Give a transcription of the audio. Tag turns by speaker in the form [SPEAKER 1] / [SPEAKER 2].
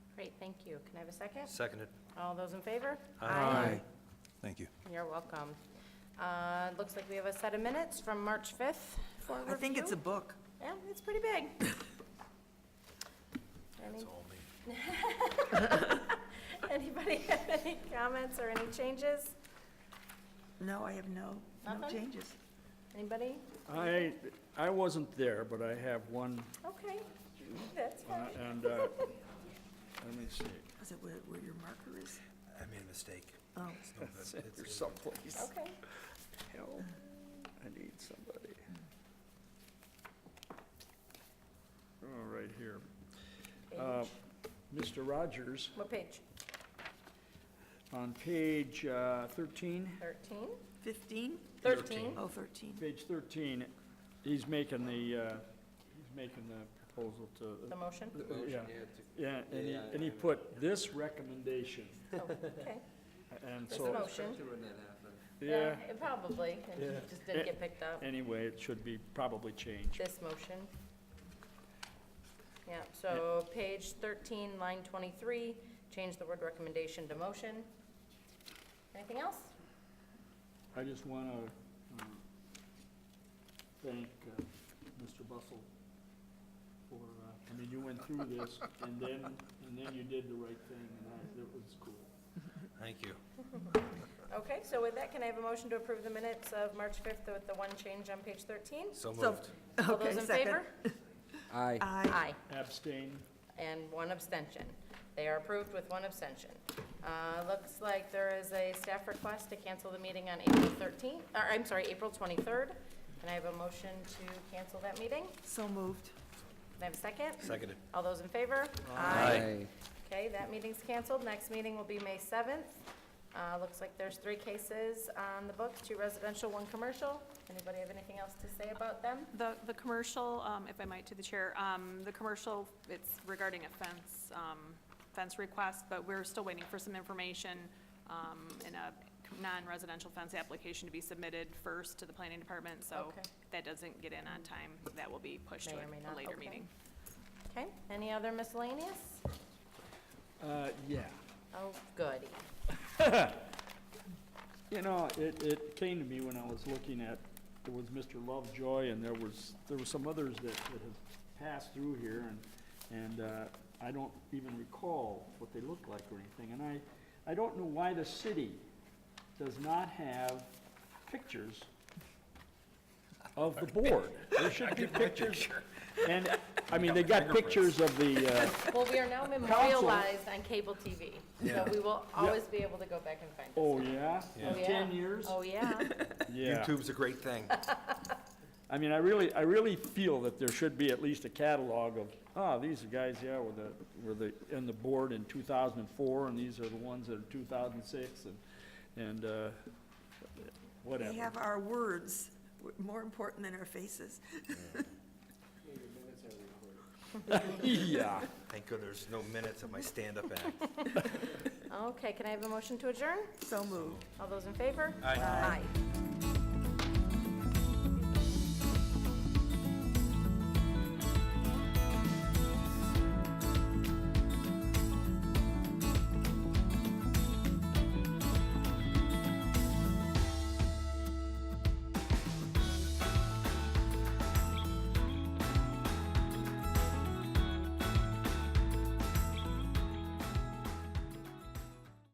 [SPEAKER 1] Thank you. Can I have a second?
[SPEAKER 2] Seconded.
[SPEAKER 1] All those in favor?
[SPEAKER 3] Thank you.
[SPEAKER 1] You're welcome. Uh, it Looks like we have a set of minutes from March 5th for review.
[SPEAKER 4] I think it's a book.
[SPEAKER 1] Yeah, it's pretty big.
[SPEAKER 2] That's
[SPEAKER 1] Any-
[SPEAKER 2] all me.
[SPEAKER 1] Anybody have any comments or any changes?
[SPEAKER 4] No, I have no, no
[SPEAKER 1] Nothing?
[SPEAKER 4] changes.
[SPEAKER 1] Anybody?
[SPEAKER 5] I, I wasn't there, but I have one,
[SPEAKER 1] Okay, that's
[SPEAKER 5] uh,
[SPEAKER 1] fine.
[SPEAKER 5] and, uh, let me see.
[SPEAKER 4] Is it where, where your marker is?
[SPEAKER 2] I made a mistake.
[SPEAKER 4] Oh,
[SPEAKER 2] It's no good.
[SPEAKER 5] It's in
[SPEAKER 2] It's-
[SPEAKER 5] here someplace.
[SPEAKER 1] Okay.
[SPEAKER 5] Help, I need somebody. Oh, right here. Uh, Mr. Rogers,
[SPEAKER 1] What page?
[SPEAKER 5] on page uh, 13,
[SPEAKER 1] 13?
[SPEAKER 4] 15?
[SPEAKER 1] 13?
[SPEAKER 4] Oh, 13.
[SPEAKER 5] page 13, he's making the, uh, he's making the proposal
[SPEAKER 1] The
[SPEAKER 5] to,
[SPEAKER 1] motion?
[SPEAKER 5] uh, yeah. Yeah, and he, and he put this recommendation,
[SPEAKER 1] Oh, Okay,
[SPEAKER 5] and
[SPEAKER 1] it's a
[SPEAKER 5] so,
[SPEAKER 1] motion.
[SPEAKER 5] yeah,
[SPEAKER 1] it Probably, and
[SPEAKER 5] Yeah.
[SPEAKER 1] it just didn't get picked up.
[SPEAKER 5] anyway, it should be probably changed.
[SPEAKER 1] This motion. Yeah, so page 13, line 23, change the word recommendation to motion. Anything else?
[SPEAKER 5] I just want to thank uh, Mr. Bustle for, uh, I mean, you went through this, and then, and then you did the right thing, and I- it was cool.
[SPEAKER 2] Thank you.
[SPEAKER 1] Okay, so with that, can I have a motion to approve the minutes of March 5th with the one change on page 13?
[SPEAKER 2] So
[SPEAKER 4] So-
[SPEAKER 2] moved.
[SPEAKER 1] All
[SPEAKER 4] Okay,
[SPEAKER 1] those in
[SPEAKER 4] second.
[SPEAKER 1] favor?
[SPEAKER 6] Aye.
[SPEAKER 4] Aye.
[SPEAKER 5] Abstain,
[SPEAKER 1] And one abstention. They are approved with one abstention. Uh, Looks like there is a staff request to cancel the meeting on April 13th, or I'm sorry, April 23rd. Can I have a motion to cancel that meeting?
[SPEAKER 4] So moved.
[SPEAKER 1] Can I have a second?
[SPEAKER 2] Seconded.
[SPEAKER 1] All those in favor?
[SPEAKER 2] Aye.
[SPEAKER 1] Okay, that meeting's canceled. Next meeting will be May 7th. Uh, Looks like there's three cases on the book, two residential, one commercial. Anybody have anything else to say about them?
[SPEAKER 7] The, the commercial, um, if I might to the chair, um, the commercial, it's regarding a fence, um, fence request, but we're still waiting for some information, um, in a non-residential fence application to be submitted first to the planning department, so
[SPEAKER 1] Okay.
[SPEAKER 7] if that doesn't get in on time, that will be pushed to
[SPEAKER 1] May or may
[SPEAKER 7] a
[SPEAKER 1] not,
[SPEAKER 7] a later
[SPEAKER 1] okay.
[SPEAKER 7] meeting.
[SPEAKER 1] Okay, any other miscellaneous?
[SPEAKER 5] Uh, yeah.
[SPEAKER 1] Oh, goody.
[SPEAKER 5] You know, it, it came to me when I was looking at, there was Mr. Lovejoy, and there was, there were some others that, that have passed through here, and, and, uh, I don't even recall what they looked like or anything, and I, I don't know why the city does not have pictures of the board. There should be pictures, and, I mean, they got pictures of the, uh,
[SPEAKER 1] Well, we are now memorialized on cable TV, so we will always be able to go back and find it.
[SPEAKER 5] oh, yeah,
[SPEAKER 1] Oh,
[SPEAKER 5] in
[SPEAKER 1] yeah.
[SPEAKER 5] ten years?
[SPEAKER 1] Oh, yeah.
[SPEAKER 5] Yeah.
[SPEAKER 2] YouTube's a great thing.
[SPEAKER 5] I mean, I really, I really feel that there should be at least a catalog of, ah, these are guys, yeah, were the, were the, in the board in two thousand and four, and these are the ones that are two thousand and six, and, and, uh,
[SPEAKER 4] We
[SPEAKER 5] whatever.
[SPEAKER 4] have our words, w- more important than our faces.
[SPEAKER 5] Yeah.
[SPEAKER 2] Thank goodness, there's no minutes of my stand-up act.
[SPEAKER 1] Okay, can I have a motion to adjourn?
[SPEAKER 4] So moved.
[SPEAKER 1] All those in favor?
[SPEAKER 2] Aye.
[SPEAKER 1] Aye.